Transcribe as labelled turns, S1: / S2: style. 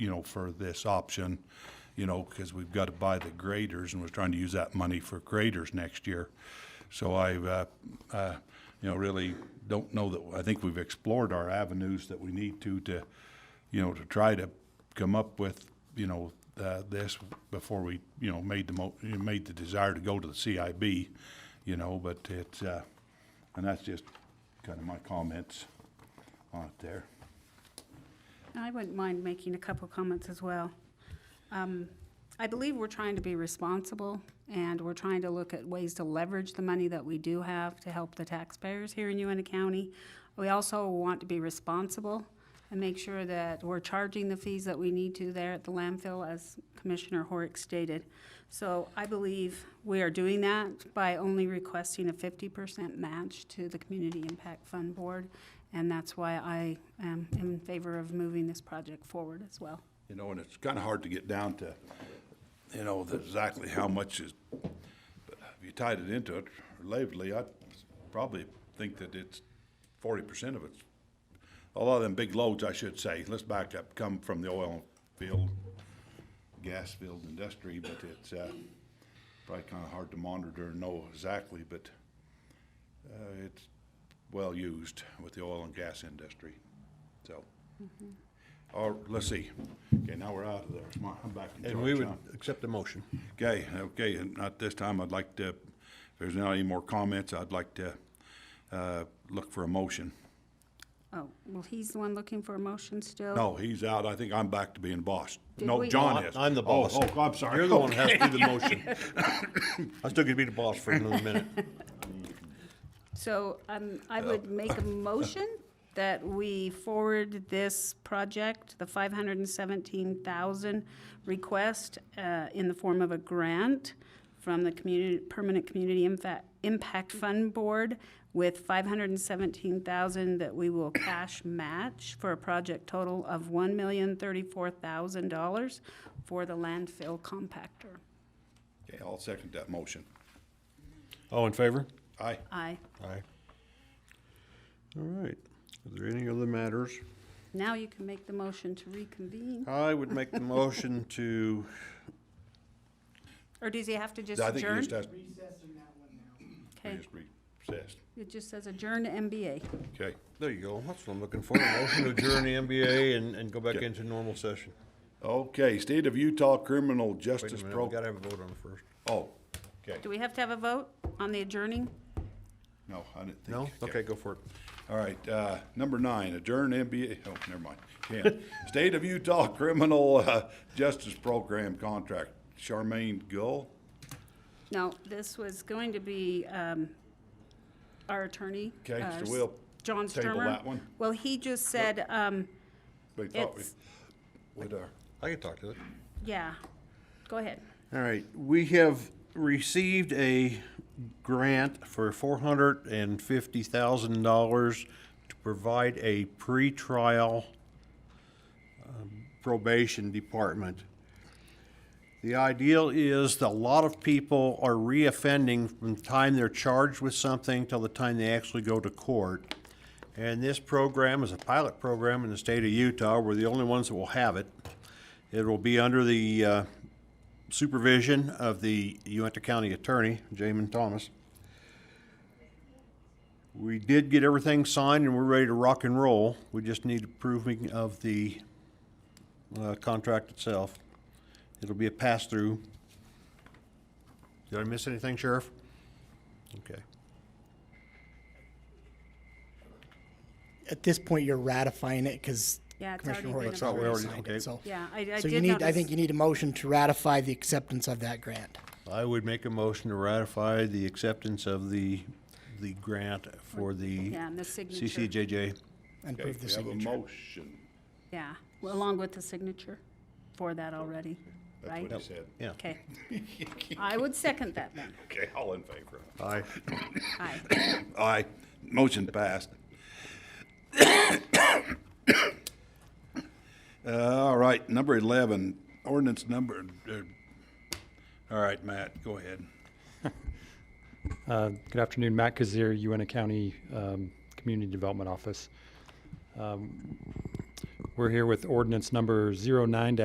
S1: you know, for this option, you know, because we've got to buy the graders and was trying to use that money for graders next year. So I, uh, uh, you know, really don't know that, I think we've explored our avenues that we need to, to, you know, to try to come up with, you know, uh, this before we, you know, made the mo, made the desire to go to the CIB, you know, but it's, uh, and that's just kind of my comments on it there.
S2: I wouldn't mind making a couple comments as well. Um, I believe we're trying to be responsible, and we're trying to look at ways to leverage the money that we do have to help the taxpayers here in UNT County. We also want to be responsible and make sure that we're charging the fees that we need to there at the landfill, as Commissioner Horick stated. So I believe we are doing that by only requesting a fifty percent match to the Community Impact Fund Board, and that's why I um, am in favor of moving this project forward as well.
S1: You know, and it's kind of hard to get down to, you know, the- exactly how much is, but if you tied it into it relatively, I'd probably think that it's forty percent of it. A lot of them big loads, I should say, let's back up, come from the oil field, gas field industry, but it's, uh, probably kind of hard to monitor and know exactly, but, uh, it's well used with the oil and gas industry, so. Or, let's see. Okay, now we're out of there. Come on, I'm back in charge.
S3: And we would
S1: huh?
S3: accept the motion.
S1: Okay, okay, and at this time, I'd like to, if there's not any more comments, I'd like to, uh, look for a motion.
S2: Oh, well, he's the one looking for a motion still?
S1: No, he's out. I think I'm back to being boss.
S2: Did
S1: No,
S2: we-
S1: John
S2: No,
S1: is.
S3: I'm the
S1: Oh,
S3: boss.
S1: Oh, I'm sorry.
S3: You're the one who has to do the motion. I still could be the boss for another minute.
S2: So um, I would make a motion that we forward this project, the 517,000 request uh, in the form of a grant from the Community, Permanent Community Infa- Impact Fund Board with 517,000 that we will cash match for a project total of $1,034,000 for the landfill compactor.
S1: Okay, I'll second that motion.
S3: All in favor?
S1: Aye.
S2: Aye.
S3: Aye. All right. Are there any other matters?
S2: Now you can make the motion to reconvene,
S3: I would make the motion to,
S2: or does he have to just
S1: I think you
S2: adjourn?
S1: just has,
S2: Okay.
S1: you just recessed.
S2: It just says adjourn to MBA.
S1: Okay,
S3: there you go, that's what I'm looking for, a motion to adjourn the MBA and, and go back
S1: Okay.
S3: into normal session.
S1: okay, State of Utah Criminal
S3: Wait a
S1: Justice
S3: minute, we
S1: Pro,
S3: gotta have a vote on it first.
S1: oh, okay,
S2: Do we have to have a vote on the adjourning?
S1: no, I didn't think.
S3: No? Okay, go for it.
S1: All right, uh, number nine, adjourn NBA, oh, never mind, ten. State of Utah Criminal uh, Justice Program Contract, Charmaine Gull.
S2: No, this was going to be um, our attorney.
S1: Okay,
S2: uh,
S1: so we'll
S2: John
S1: table
S2: Sturmer.
S1: that one.
S2: Well, he just said, um,
S1: We thought we-
S2: It's-
S1: we'd, uh,
S3: I can talk to it.
S2: yeah, go ahead.
S3: All right, we have received a grant for four hundred and fifty thousand dollars to provide a pretrial um, probation department. The ideal is that a lot of people are reoffending from the time they're charged with something till the time they actually go to court. And this program is a pilot program in the state of Utah. We're the only ones that will have it. It will be under the uh, supervision of the Uinta County Attorney, Jamin Thomas. We did get everything signed and we're ready to rock and roll. We just need approving of the uh, contract itself. It'll be a pass-through. Did I miss anything, Sheriff? Okay.
S4: at this point, you're ratifying it because
S2: Yeah, it's
S4: Commissioner
S2: already
S4: Roy
S2: been
S4: has already
S2: approved.
S4: signed
S3: Okay.
S4: it, so.
S2: Yeah, I, I did notice.
S4: So you need, I think you need a motion to ratify the acceptance of that grant.
S3: I would make a motion to ratify the acceptance of the, the grant for the
S2: Yeah, and the signature.
S3: CCJJ.
S4: And
S1: okay,
S4: prove the
S1: we have a
S4: signature.
S1: motion,
S2: Yeah, well, along with the signature for that already,
S1: that's
S2: right?
S1: what he said.
S3: Yeah.
S2: Okay. I would second that then.
S1: Okay, all in favor?
S3: Aye.
S2: Aye.
S1: Aye, motion passed. Uh, all right, number eleven, ordinance number, uh, all right, Matt, go ahead.
S5: Uh, Good afternoon, Matt Kazir, Uinta County um, Community Development Office. Um, We're here with ordinance number 9